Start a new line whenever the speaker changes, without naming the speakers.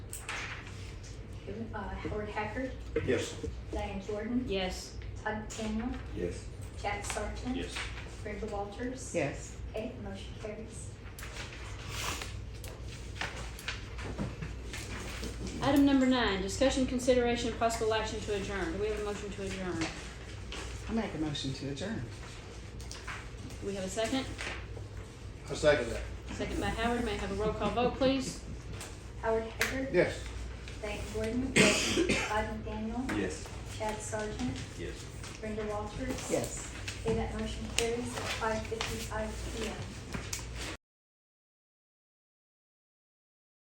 uh, Howard Haggard,
Yes.
Diane Jordan,
Yes.
Todd Daniel,
Yes.
Jack Sargent.
Yes.
Brenda Walters.
yes,
Okay, motion carries.
Item number nine, discussion, consideration, and possible action to adjourn. Do we have a motion to adjourn?
I make a motion to adjourn.
Do we have a second?
I second that.
Second by Howard. May I have a roll call vote, please?
Howard Haggard,
Yes.
Diane Jordan. Todd Daniel,
Yes.
Chad Sargent,
Yes.
Brenda Walters.
Yes.
Okay, that motion carries at five fifty-five P M.